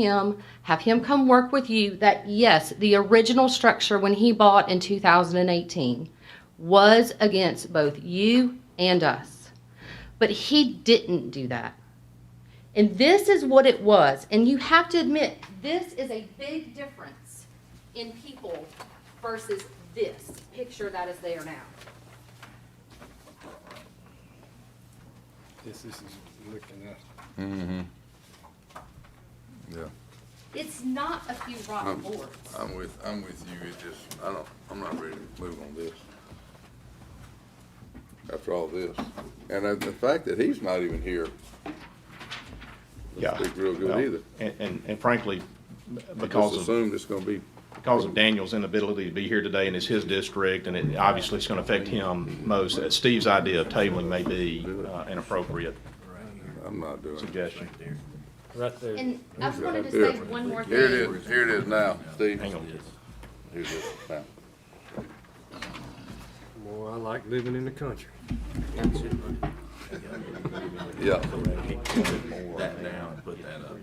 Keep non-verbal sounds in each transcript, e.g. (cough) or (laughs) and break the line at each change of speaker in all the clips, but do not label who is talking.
him, have him come work with you, that yes, the original structure when he bought in 2018 was against both you and us. But he didn't do that. And this is what it was. And you have to admit, this is a big difference in people versus this picture that is there now.
This, this is looking at,
Mm-hmm. Yeah,
It's not a few rotten
Um,
boards.
I'm with, I'm with you, it just, I don't, I'm not ready to move on this. After all this, and uh, the fact that he's not even here,
Yeah.
Speak real good
Well,
either.
and- And, and frankly,
I
because
just
of,
assumed it's gonna be,
because of Daniel's inability to be here today and it's his district and it, obviously it's gonna affect him most. uh, Steve's idea of tabling may be uh, an appropriate
I'm not doing it.
suggestion.
Right there.
And I just wanted to
Here.
say one more thing.
Here it is, here it is now, Steve.
Hang on.
Here's it now.
boy, I like living in the country.
Yeah,
that down and put that up.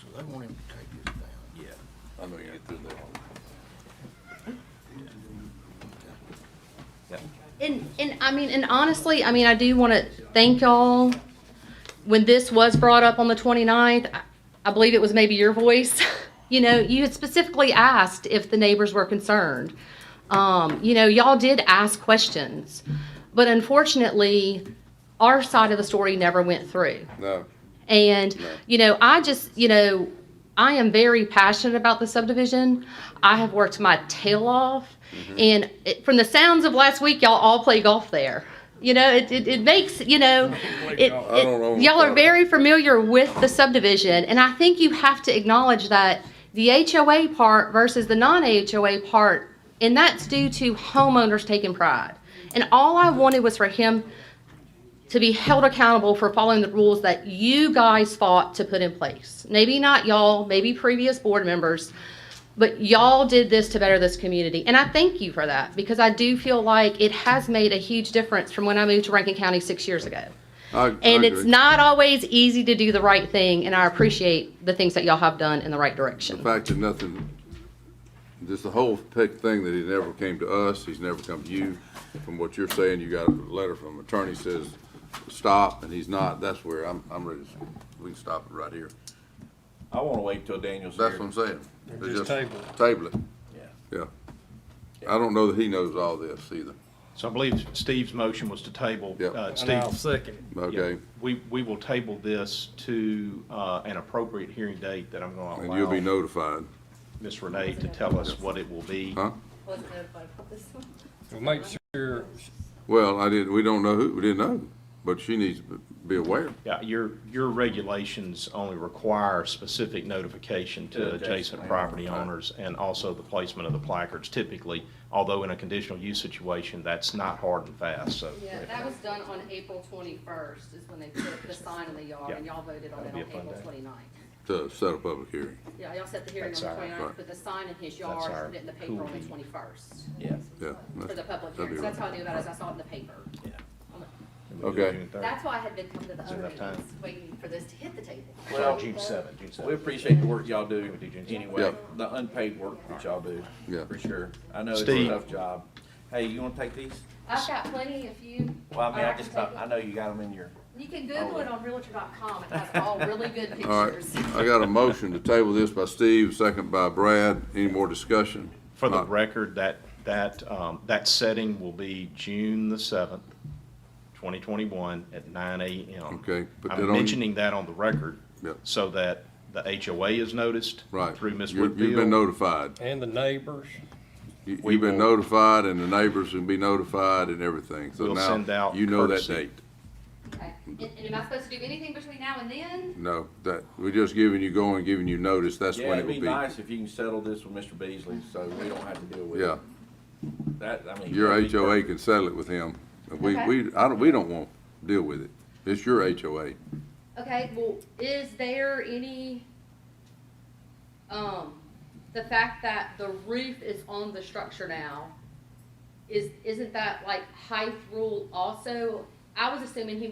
So they want him to take this down? Yeah.
I know you get through that.
And, and I mean, and honestly, I mean, I do want to thank y'all. When this was brought up on the 29th, I- I believe it was maybe your voice. (laughs) You know, you had specifically asked if the neighbors were concerned. Um, you know, y'all did ask questions, but unfortunately, our side of the story never went through.
No,
And, you know, I just, you know, I am very passionate about the subdivision. I have worked my tail off.
Mm-hmm.
And it, from the sounds of last week, y'all all play golf there. You know, it, it, it makes, you know, it,
golf. I don't
it-
own
y'all are
golf.
very familiar with the subdivision. And I think you have to acknowledge that the HOA part versus the non HOA part, and that's due to homeowners taking pride. And all I wanted was for him to be held accountable for following the rules that you guys fought to put in place. Maybe not y'all, maybe previous board members, but y'all did this to better this community. And I thank you for that because I do feel like it has made a huge difference from when I moved to Rankin County six years ago.
I, I
And it's
agree.
not always easy to do the right thing, and I appreciate the things that y'all have done in the right
The
direction.
fact that nothing, just the whole pick thing that he never came to us, he's never come to you. From what you're saying, you got a letter from attorney says, stop, and he's not, that's where I'm, I'm ready, to we can stop it right here.
I wanna wait till Daniel's here.
That's what I'm saying.
Just table it.
Table it,
Yeah.
yeah. I don't know that he knows all this either,
So I believe Steve's motion was to table.
Yeah.
uh,
And I'll
Steve,
second it.
okay?
we, we will table this to uh, an appropriate hearing date that I'm gonna
And you'll be
allow
notified,
Ms. Renee to tell us what it will be.
huh?
Well, make sure,
Well, I didn't, we don't know who, we didn't know, but she needs to be aware.
Yeah, your, your regulations only require specific notification to
To
adjacent
adjacent
property owners and also the placement of the placards typically, although in a conditional use situation, that's not hard and fast, so.
Yeah, that was done on April 21st is when they put the sign in the yard, and
Yeah.
y'all voted on it
That'd
on
be a fun
April
day.
29th.
to set a public hearing.
Yeah, y'all set the hearing on
That's
the
our-
29th,
right.
put the sign in his
That's
yard,
our
put it in the paper on the
cool.
twenty-first,
Yeah.
Yeah.
for the public
That'd
hearing,
be
so that's how
right.
I knew about it, is I saw it in the paper.
Yeah.
I'm like,
We'll do it
Okay.
June 30th.
That's why I had been coming to the
Is there
other
enough time?
meetings, waiting for this to hit the table.
Well,
June seventh, June seventh.
We appreciate the work y'all do anyway,
Yeah.
the unpaid work that y'all do.
Yeah.
For sure. I know it's a
Steve.
tough job. Hey, you wanna take these?
I've got plenty, if you.
Well, I mean,
or
I
can
just,
take
I
it.
know you got them in your,
You can Google it on Realtor.com, it has all really good
All right,
pictures.
I got a motion to table this by Steve, second by Brad. Any more discussion?
For the
Not-
record, that, that, um, that setting will be June the seventh, twenty twenty-one at nine AM.
Okay, put that on
I'm
you-
mentioning that on the record.
Yep.
So that the HOA is noticed.
Right.
Through Ms.
You're-
Woodfield.
You've been notified.
and the neighbors,
You-
We
You've been
will-
notified, and the neighbors will be notified and everything. So
We'll send
now,
out
you know that
courtesy.
date.
Okay. And, and am I supposed to do anything between now and then?
No, that, we're just giving you, going, giving you notice, that's
yeah,
when it
it'd
will
be
be.
nice if you can settle this with Mr. Beasley, so we don't have to deal with it.
Yeah,
That, I mean.
your
that'd be
HOA
perfect.
can settle it with him. We,
Okay.
we, I don't, we don't want to deal with it. It's your HOA.
Okay, well, is there any, um, the fact that the roof is on the structure now, is, isn't that like height rule also? I- I was assuming he